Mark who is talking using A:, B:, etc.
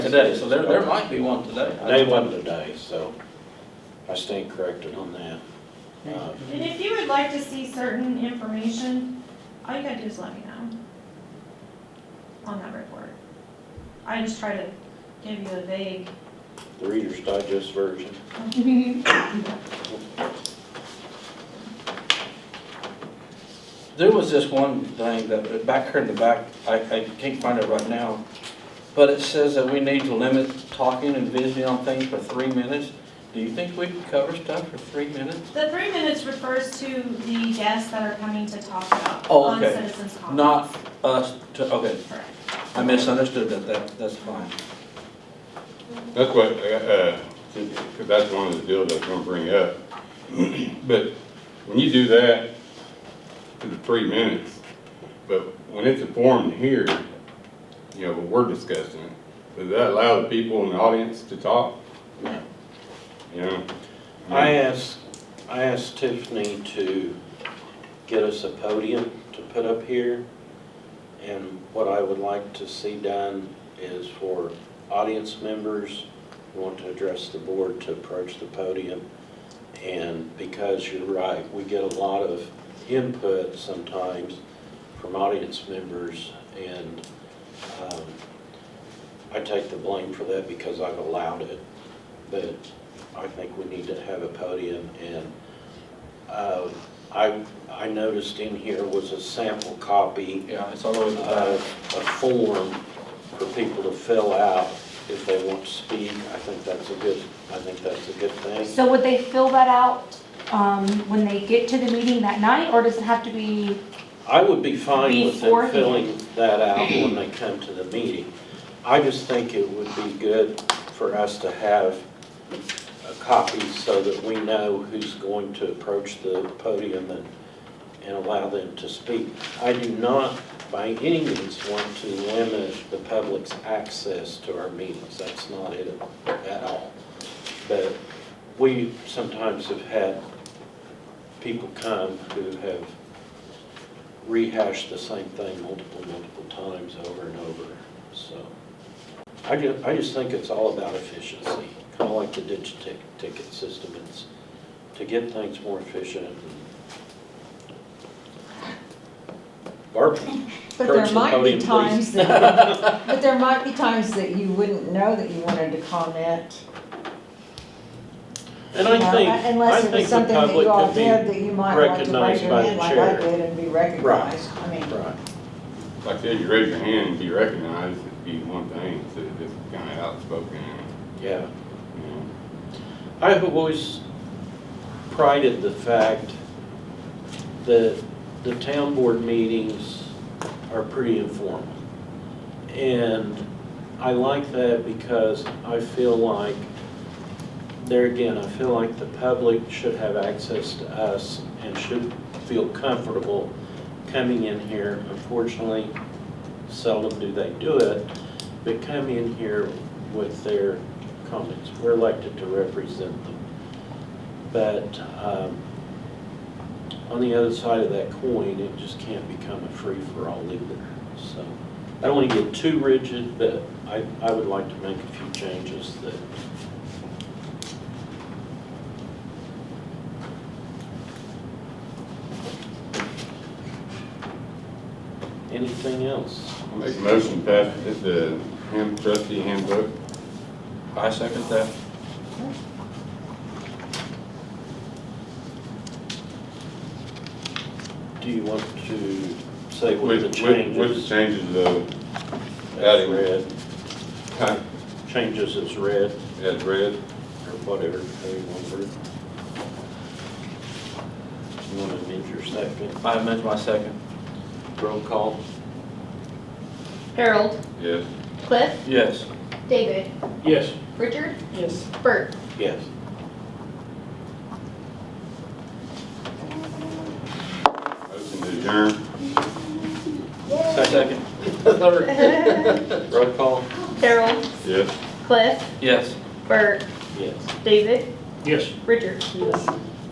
A: today, so there, there might be one today.
B: They wasn't today, so I stand corrected on that. Uh,
C: And if you would like to see certain information, all you gotta do is let me know on that report. I just try to give you a vague.
B: The Reader's Digest version.
A: There was this one thing that, back here in the back, I, I can't find it right now, but it says that we need to limit talking and visiting on things for three minutes. Do you think we can cover stuff for three minutes?
C: The three minutes refers to the guests that are coming to talk about
A: Oh,
C: on
A: okay.
C: citizens' comments.
A: Not us, to, okay,
C: Correct.
A: I misunderstood that, that, that's fine.
D: That's what, uh, uh, 'cause that's one of the deals I was gonna bring up. But when you do that, to the three minutes, but when it's a forum here, you know, we're discussing it, does that allow the people in the audience to talk? You know?
B: I asked, I asked Tiffany to get us a podium to put up here. And what I would like to see done is for audience members who want to address the board to approach the podium. And because you're right, we get a lot of input sometimes from audience members. And um, I take the blame for that because I've allowed it. But I think we need to have a podium, and uh, I, I noticed in here was a sample copy
A: Yeah, it's uh, all over the back.
B: of a form for people to fill out if they want to speak. I think that's a good, I think that's a good thing.
E: So would they fill that out um, when they get to the meeting that night, or does it have to be,
B: I would be fine with them
E: Beforehand.
B: filling that out when they come to the meeting. I just think it would be good for us to have a copy so that we know who's going to approach the podium and, and allow them to speak. I do not by any means want to limit the public's access to our meetings. That's not it at all. But we sometimes have had people come who have rehashed the same thing multiple, multiple times over and over, so. I just, I just think it's all about efficiency, kind of like the ditch tick, ticket system, it's to get things more efficient. Barb,
F: But
B: Approach
F: there
B: the
F: might
B: podium,
F: be
B: please.
F: times that, but there might be times that you wouldn't know that you wanted to comment.
B: and
F: you know,
B: I think, I
F: Unless it was
B: think the
F: something that you all
B: public
F: did
B: could
F: that you might like to raise
B: recognized
F: your
B: by
F: hand
B: the
F: like I
B: chair.
F: did and be recognized. I mean,
B: be, right,
D: Like I said, you raise your hand and be recognized, it'd be one thing, instead of just kinda outspoken,
B: yeah.
D: you know?
B: I have always prided the fact that the town board meetings are pretty informal. And I like that because I feel like, there again, I feel like the public should have access to us and should feel comfortable coming in here. Unfortunately, seldom do they do it, but come in here with their comments. We're elected to represent them. But um, on the other side of that coin, it just can't become a free-for-all either. So I don't want to get too rigid, but I, I would like to make a few changes that, anything else?
D: I Make a motion, pass it, the hand- trustee handbook.
A: I second that.
B: Do you want to say what
D: With,
B: the
D: with,
B: changes?
D: with the changes of,
B: As read,
D: huh,
B: changes as read,
D: as read.
B: or whatever, how you want to word it. You want to amend your second,
A: I amend my second.
B: roll call?
G: Harold,
D: Yes.
G: Cliff,
A: Yes.
G: David,
B: Yes.
G: Richard? Yes. Bert?
B: Yes.
D: Motion to adjourn.
A: Second.
B: Roll call?
G: Harold,
D: Yes.
G: Cliff,
A: Yes.
G: Bert,
B: Yes.
G: David,
B: Yes.
G: Richard? Yes.